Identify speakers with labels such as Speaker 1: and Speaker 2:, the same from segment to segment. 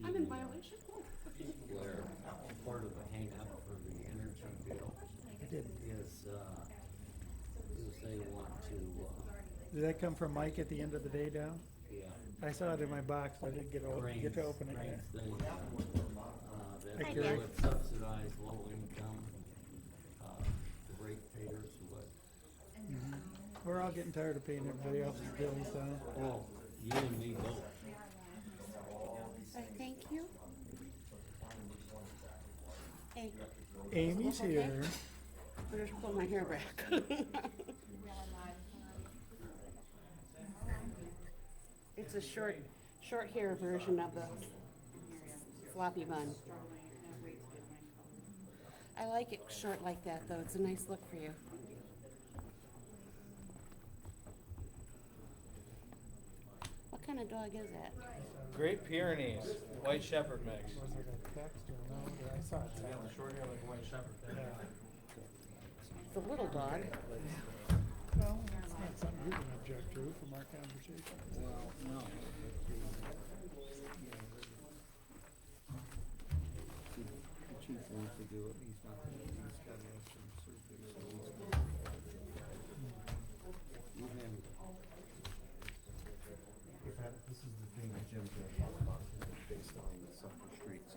Speaker 1: Blair, where's your phone?
Speaker 2: where part of the hangup for the energy bill is, uh, is they want to, uh,
Speaker 3: Did that come from Mike at the end of the day, Down?
Speaker 2: yeah,
Speaker 3: I saw it in my box, but I didn't get, o-
Speaker 2: arrange,
Speaker 3: get to open it
Speaker 2: arrange
Speaker 3: yet.
Speaker 2: things, uh, uh,
Speaker 3: Hi,
Speaker 2: that they
Speaker 3: Dad.
Speaker 2: would subsidize low income, uh, the rate payers who would.
Speaker 3: Mm-hmm. We're all getting tired of paying everybody else's bills, huh?
Speaker 2: Well, you and me both.
Speaker 1: Sorry, thank you. Hey,
Speaker 3: Amy's here.
Speaker 1: I just pull my hair back. It's a short, short hair version of the floppy bun. I like it short like that, though. It's a nice look for you. What kind of dog is that?
Speaker 4: Great Pyrenees, White Shepherd mix.
Speaker 3: Was it a text or no? Yeah, I saw it.
Speaker 4: short hair like a White Shepherd.
Speaker 1: It's a little dog.
Speaker 3: Well, that's not something you can object to from our conversation.
Speaker 2: Well, no.
Speaker 5: The chief wants to do it, he's not gonna, he's gotta have some surgery, so he's gonna. You have it.
Speaker 6: If that, this is the thing that Jim just talked about, based on the Suffolk streets.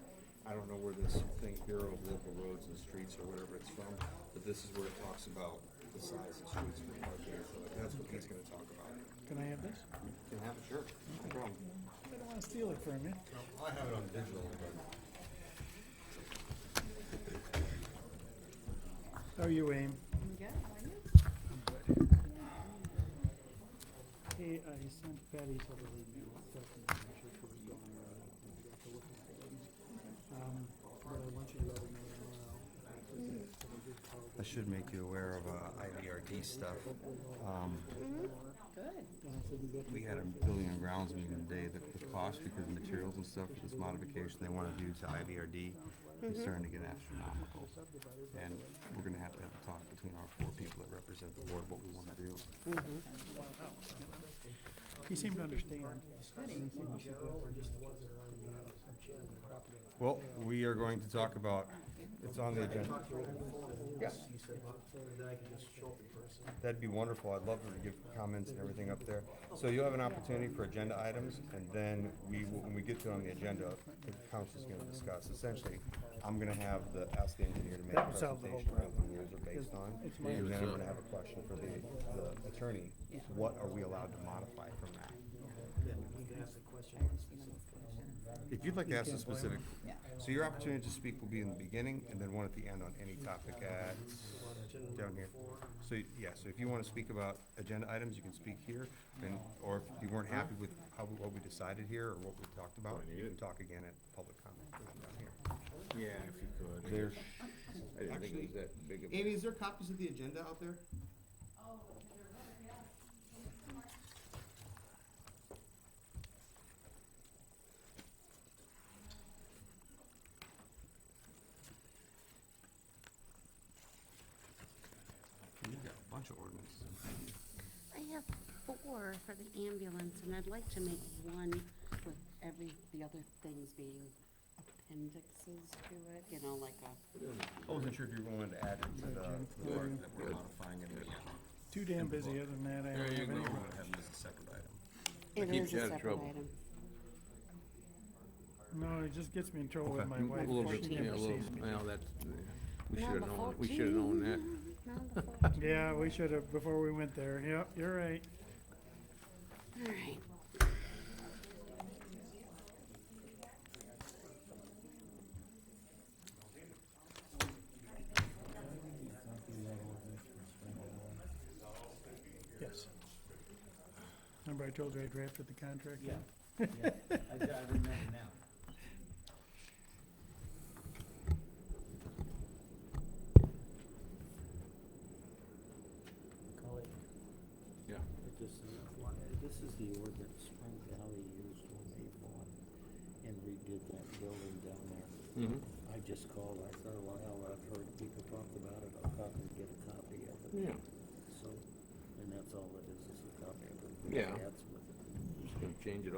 Speaker 6: I don't know where this thing, Bureau of Local Roads and Streets or whatever it's from, but this is where it talks about the size of streets for parking, and stuff like that. that's what he's gonna talk about.
Speaker 3: Can I have this?
Speaker 6: Can have it, sure, no problem.
Speaker 3: I don't wanna steal it from you.
Speaker 6: I have it on digital, but.
Speaker 3: How are Oh, you, Aim? Hey, I sent Betty to the lead mail, so I can make sure she was going around. You have to look at it. Um, but I want you to let her know tomorrow. So we did call
Speaker 6: I should make you aware of uh, IVRD stuff. Um,
Speaker 3: and I said, "You got
Speaker 6: we had a building and grounds meeting today, the, the cost because of materials and stuff, for this modification they wanna do to IVRD is starting to get astronomical. And we're gonna have to have a talk between our four people that represent the board, what we wanna do.
Speaker 3: He seemed to understand. Didn't seem to get it.
Speaker 6: Well, we are going to talk about, it's on the agenda. Yes. That'd be wonderful. I'd love to give comments and everything up there. So you'll have an opportunity for agenda items, and then we, will- when we get to it on the agenda, the council's gonna discuss. Essentially, I'm gonna have the, ask the engineer to make a
Speaker 3: That would solve the whole
Speaker 6: presentation on what the rules are based on.
Speaker 3: It's my
Speaker 6: And then I'm gonna have a question for the, the attorney. What are we allowed to modify from that? If you'd like to ask a specific, so your opportunity to speak will be in the beginning and then one at the end on any topic at, down here. So, yeah, so if you wanna speak about agenda items, you can speak here, and, or if you weren't happy with how, what we decided here or what we talked about, you can talk again at public comment down here.
Speaker 7: Yeah, if you could.
Speaker 6: There's,
Speaker 7: I didn't think it was that big of a.
Speaker 5: is there copies of the agenda out there?
Speaker 6: you've got a bunch of ordinances.
Speaker 1: I have four for the ambulance, and I'd like to make one with every, the other things being appendixes to it, you know, like a,
Speaker 6: I wasn't sure if you wanted to add it to the, to the part that we're modifying it.
Speaker 3: Too damn busy, other than that, I don't have any.
Speaker 6: have it as a second item.
Speaker 1: it
Speaker 7: keeps
Speaker 1: is
Speaker 7: you
Speaker 1: a
Speaker 7: out of
Speaker 1: separate
Speaker 7: trouble.
Speaker 1: item.
Speaker 3: No, it just gets me in trouble with
Speaker 7: Okay.
Speaker 3: my wife.
Speaker 7: A little bit,
Speaker 3: She
Speaker 7: yeah,
Speaker 3: never
Speaker 7: a little,
Speaker 3: sees me.
Speaker 7: well, that's, we
Speaker 1: Number
Speaker 7: should have known, we
Speaker 1: 14.
Speaker 7: should have known that.
Speaker 1: Number 14.
Speaker 3: Yeah, we should have, before we went there. Yep, you're right.
Speaker 1: All right.
Speaker 3: Yes. Remember I told you I drafted the contract? Yeah.
Speaker 2: I remember now. Colleague,
Speaker 7: Yeah.
Speaker 2: I just, uh, this is the ordinance Spring Valley used when they bought and redid that building down there.
Speaker 7: Mm-hmm.
Speaker 2: I just called, I thought, well, hell, I've heard people talk about it, I'll probably get a copy of it.
Speaker 7: Yeah.
Speaker 2: So, and that's all it is, is a copy of it.
Speaker 7: Yeah.
Speaker 2: That's with it.
Speaker 7: Just gonna change it